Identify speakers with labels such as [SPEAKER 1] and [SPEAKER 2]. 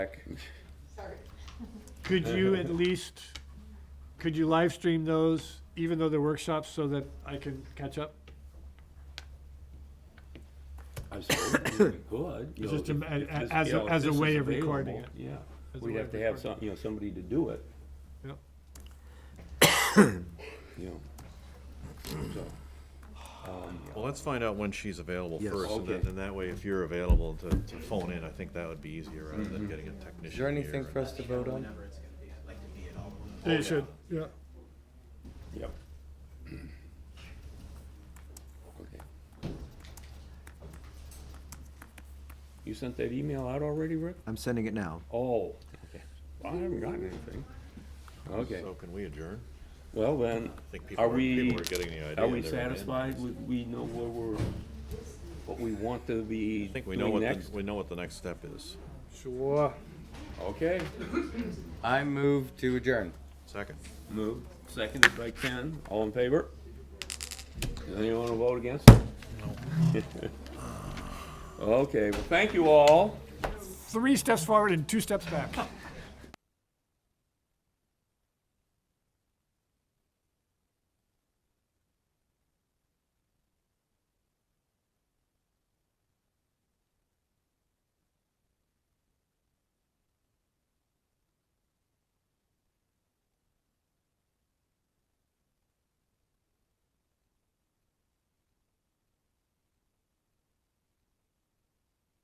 [SPEAKER 1] Sorry.
[SPEAKER 2] Could you at least, could you live stream those, even though they're workshops, so that I can catch up?
[SPEAKER 3] I suppose you could. you
[SPEAKER 2] It's
[SPEAKER 3] know,
[SPEAKER 2] just a-
[SPEAKER 3] if- if
[SPEAKER 2] a-
[SPEAKER 3] this-
[SPEAKER 2] as a-
[SPEAKER 3] you know, if
[SPEAKER 2] as a
[SPEAKER 3] this
[SPEAKER 2] way
[SPEAKER 3] is
[SPEAKER 2] of recording
[SPEAKER 3] available, Yeah,
[SPEAKER 2] As a
[SPEAKER 3] we'd
[SPEAKER 2] way
[SPEAKER 3] have
[SPEAKER 2] of
[SPEAKER 3] to have
[SPEAKER 2] recording.
[SPEAKER 3] some, you know, somebody to do it,
[SPEAKER 2] Yep.
[SPEAKER 3] you know. So,
[SPEAKER 4] Well, let's find out when she's available
[SPEAKER 5] Yes.
[SPEAKER 4] first, and then,
[SPEAKER 3] Okay.
[SPEAKER 4] and that way, if you're available to, to phone in, I think that would be easier rather than getting a technician
[SPEAKER 5] Mm-hmm. Is there
[SPEAKER 4] here
[SPEAKER 5] anything
[SPEAKER 4] and-
[SPEAKER 5] for us to vote on?
[SPEAKER 2] They should, Oh, yeah.
[SPEAKER 3] yeah. Okay. You sent that email out already, Rick?
[SPEAKER 5] I'm sending it now.
[SPEAKER 3] Oh, okay. I haven't gotten anything. Okay,
[SPEAKER 4] So can we adjourn?
[SPEAKER 3] well then,
[SPEAKER 4] I think people
[SPEAKER 3] are
[SPEAKER 4] are,
[SPEAKER 3] we,
[SPEAKER 4] people are getting the idea.
[SPEAKER 3] are we
[SPEAKER 4] they're in.
[SPEAKER 3] satisfied? We, we know where we're, what we want to be
[SPEAKER 4] I think we know
[SPEAKER 3] doing
[SPEAKER 4] what, the-
[SPEAKER 3] next?
[SPEAKER 4] we know what the next step is.
[SPEAKER 2] Sure.
[SPEAKER 3] Okay,
[SPEAKER 5] I move to adjourn.
[SPEAKER 4] Second.
[SPEAKER 3] moved, seconded by Ken, all in favor? Does anyone wanna vote against? No. Okay, well, thank you all.
[SPEAKER 2] Three steps forward and two steps back.